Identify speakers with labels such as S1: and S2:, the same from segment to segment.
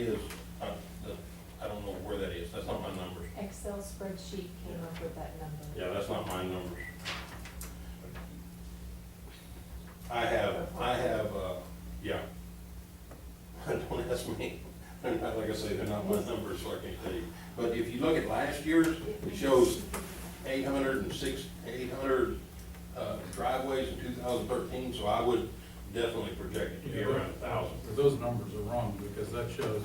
S1: Is, uh, the- I don't know where that is, that's not my numbers.
S2: Excel spreadsheet came up with that number.
S1: Yeah, that's not my numbers. I have, I have, uh, yeah. Don't ask me, they're not, like I say, they're not my numbers, so I can't tell you. But if you look at last year's, it shows eight hundred and six, eight hundred uh, driveways in two thousand thirteen, so I would definitely project it to be around a thousand.
S3: But Those numbers are wrong, because that shows,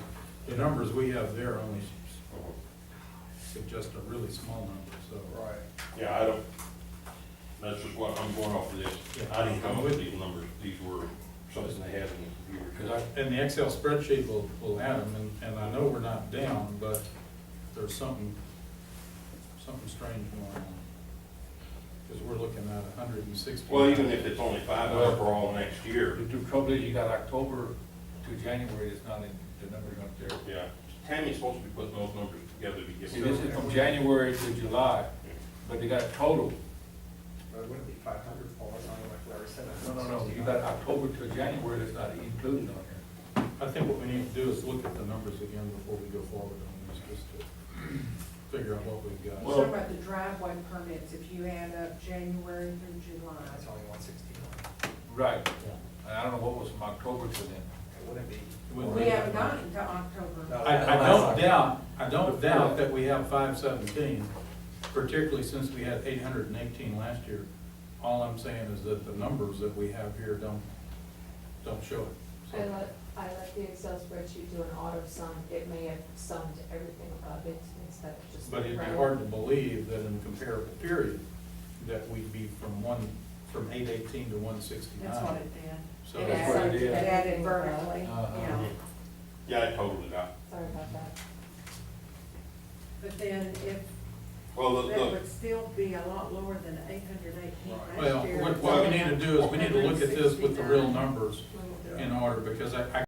S3: the numbers we have there only
S1: Uh-huh.
S3: suggest a really small number, so.
S4: Right.
S1: Yeah, I don't, that's just what I'm going off of this. I didn't come up with these numbers, these were something they had in the computer. 'cause I-
S3: And the Excel spreadsheet will, will add them, and, and I know we're not down, but there's something, something strange going on. Because we're looking at a hundred and sixty.
S1: Well, even if it's only five up for all next year,
S4: The trouble is, you got October to January, it's not in, the number's not there.
S1: yeah. Tammy's supposed to be putting those numbers together to get.
S4: See, this is from January to July, but they got total.
S5: Well, it wouldn't be five hundred, Paul, it's only like Larry said.
S4: No, no, no, you got October to January, that's not included on here.
S3: I think what we need to do is look at the numbers again before we go forward on this, just to figure out what we've got.
S1: Well-
S6: Talking about the driveway permits, if you add up January through July,
S5: That's only one sixty-one.
S4: Right,
S3: Yeah.
S4: and I don't know what was from October to then.
S5: It wouldn't be.
S3: Well,
S6: we haven't gotten to October.
S5: No,
S3: I, I
S5: that's
S3: don't
S5: not-
S3: doubt, I don't doubt that we have five seventeen, particularly since we had eight hundred and eighteen last year. All I'm saying is that the numbers that we have here don't, don't show it.
S2: I
S3: So,
S2: let, I let the Excel spreadsheet do an auto sum, it may have summed everything above it instead of just.
S3: But it'd be
S2: round.
S3: hard to believe that in a comparable period, that we'd be from one, from eight eighteen to one sixty-nine.
S6: That's what it did.
S3: So,
S4: It That's is. what it
S6: It
S4: is.
S6: added vertically,
S4: Uh-huh.
S6: yeah.
S1: Yeah, I totaled it out.
S2: Sorry about that.
S6: But then if,
S1: Well, the,
S6: that
S1: the,
S6: would still be a lot lower than eight hundred eighteen
S3: Well,
S6: last year.
S3: what, what we need to do is, we need to look at this with the real numbers
S2: We will do it.
S3: in order, because I, I